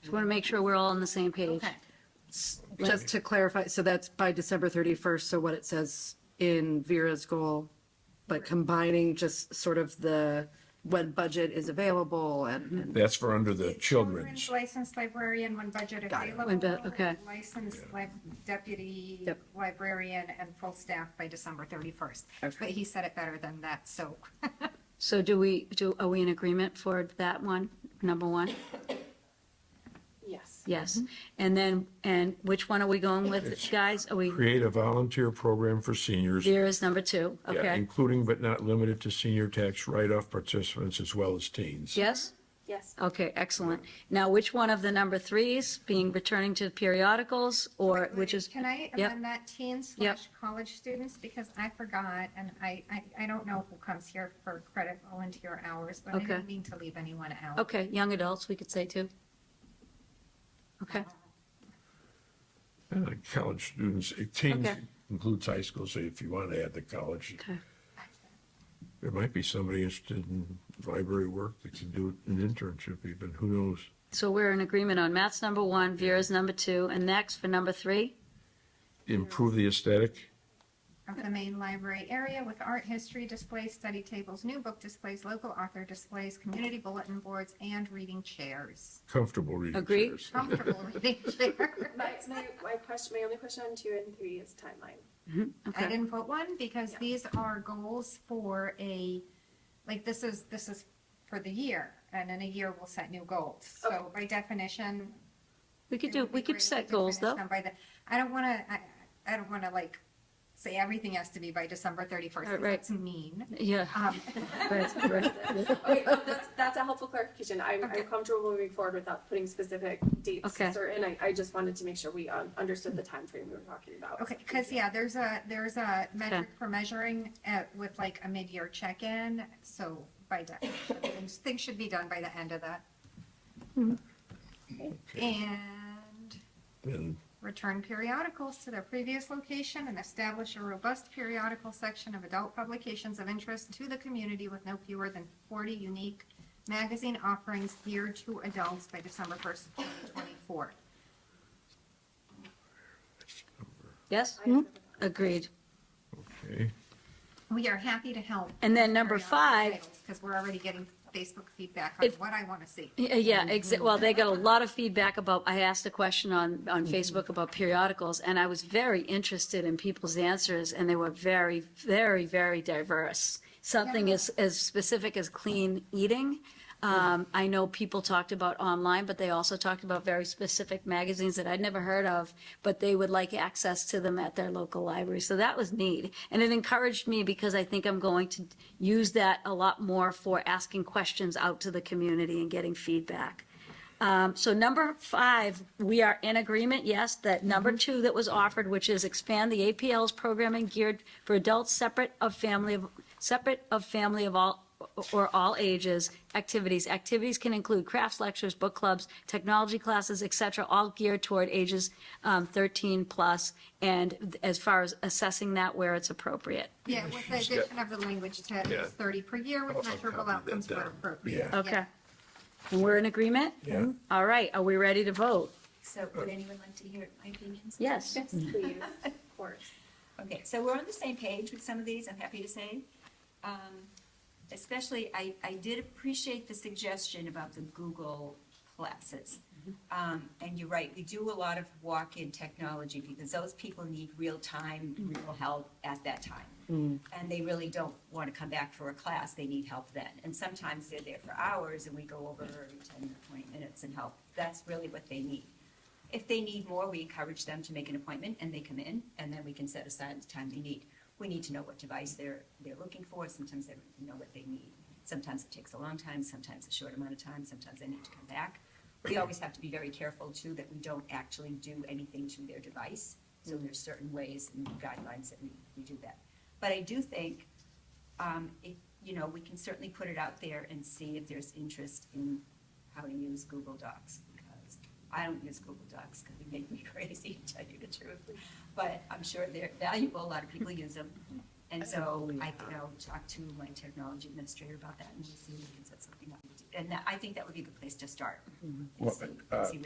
Just want to make sure we're all on the same page. Okay. Just to clarify, so that's by December 31st, so what it says in Vera's goal, but combining just sort of the, when budget is available and, and- That's for under the children's. Children's licensed librarian when budget Got it. When available. bu- okay. Licensed lib- deputy Yep. librarian and full staff by December 31st. Mm-hmm. But he said it better than that, so So do we, do, are we in agreement for that one, number one? Yes. Yes. Mm-hmm. And then, and which one are we going with, It's guys? Are we, Create a volunteer program for seniors. there is number two, yeah, okay? Including but not limited to senior tax write-off participants as well as teens. Yes? Yes. Okay, excellent. Now, which one of the number threes, being returning to periodicals, or which is, Can I Yep. amend that teen slash college students, because I forgot, and I, I, I don't know who comes here for credit volunteer hours, but I Okay. didn't mean to leave anyone out. okay, young adults, we could say too? Okay, And the college students, eh, teens Okay. includes high school, so if you want to add the college, okay. there might be somebody interested in library work that can do an internship even, who knows? So we're in agreement on Matt's number one, Vera's number two, and next for number three? Improve the aesthetic. Of the main library area with art history displays, study tables, new book displays, local author displays, community bulletin boards, and reading chairs. comfortable reading Agree. chairs. Comfortable reading chairs. My, my, my question, my only question on two and three is timeline. I Okay, didn't put one because these are goals for a, like, this is, this is for the year. And in a year, we'll set new goals. So by definition. we could it do, would be we could great if set goals finish though. them by the- I don't want to, I, I don't want to like say everything has to be by December 31st. 'cause Right, right. That's mean. Yeah. Um, right, right. Okay, no, that's, that's a helpful clarification. I'm, Okay. I'm comfortable moving forward without putting specific dates Okay. certain. I, I just wanted to make sure we um, understood the time frame we were talking about. Okay, because, yeah, there's a, there's a metric for measuring uh, with like a mid-year check-in. So by definition, things- things should be done by the end of that. And And Return periodicals to their previous location and establish a robust periodical section of adult publications of interest to the community with no fewer than 40 unique magazine offerings geared to adults by December 1st, 2024. Yes? Agreed. Okay, We are happy to help. And then number five- Because we're already getting Facebook feedback on If- what I want to see. Yeah, Yeah, exa- well, they got a lot of feedback about, I asked a question on, on Facebook about periodicals, and I was very interested in people's answers, and they were very, very, very diverse. Something as, as specific as clean eating. Um, I know people talked about online, but they also talked about very specific magazines that I'd never heard of, but they would like access to them at their local library. So that was neat. And it encouraged me because I think I'm going to use that a lot more for asking questions out to the community and getting feedback. Um, so number five, we are in agreement, yes, that number two that was offered, which is expand the APL's programming geared for adults separate of family, of separate of family of all, or all ages, activities. Activities can include crafts, lectures, book clubs, technology classes, et cetera, all geared toward ages um, 13 plus, and as far as assessing that where it's appropriate. Yeah, with the addition of the language to Yeah. 30 per year I'll with measurable copy that outcomes where down. appropriate. Yeah. Okay. And we're in agreement? Yeah. All right, are we ready to vote? So would anyone like to hear my opinions? Yes. Yes, please, of course. Okay, so we're on the same page with some of these, I'm happy to say. Um, Especially, I, I did appreciate the suggestion about the Google classes. Um, And you're right, we do a lot of walk-in technology because those people need real-time, real help at that time. And they really don't want to come back for a class, they need help then. And sometimes they're there for hours and we go over every 10 or 20 minutes and help. That's really what they need. If they need more, we encourage them to make an appointment and they come in, and then we can set aside the time they need. We need to know what device they're, they're looking for. Sometimes they don't know what they need. Sometimes it takes a long time, sometimes a short amount of time, sometimes they need to come back. We always have to be very careful too that we don't actually do anything to their device. So there's certain ways and guidelines that we, we do that. But I do think um, it, you know, we can certainly put it out there and see if there's interest in how to use Google Docs, because I don't use Google Docs, because they make me crazy, to tell you the truth. But I'm sure they're valuable, a lot of people use them. And so I think I'll talk to my technology administrator about that and we'll see if we can set something up. And that- I think that would be a good place to start. and Well, see- uh, see